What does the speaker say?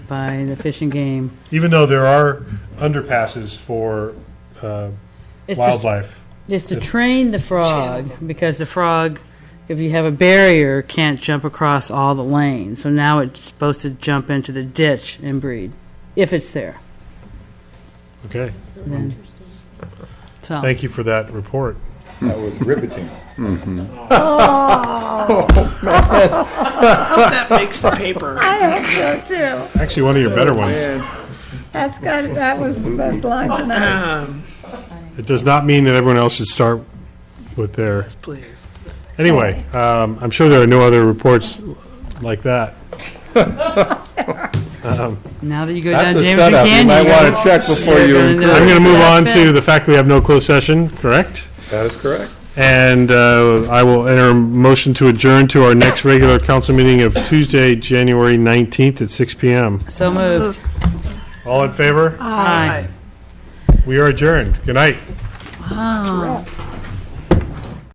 by the Fish and Game. Even though there are underpasses for uh, It's to- wildlife. It's to train the frog, because the frog, if you have a barrier, can't jump across all the lanes. So now it's supposed to jump into the ditch and breed, if it's there. Okay, Then- So, thank you for that report. That was riveting. That makes the paper. I hope so too. Actually, one of your better ones. That's good. That was the best line tonight. It does not mean that everyone else should start with their, Please. anyway, um, I'm sure there are no other reports like that. now that you go down That's James and a setup. You Canyon, might you're want gonna- to check before you're you gonna include. know I'm going to it's move that on to fence. the fact we have no closed session, correct? That is correct. And uh, I will enter a motion to adjourn to our next regular council meeting of Tuesday, January 19th at 6 PM. So moved. All in favor? Aye. We are adjourned. Good night. Wow.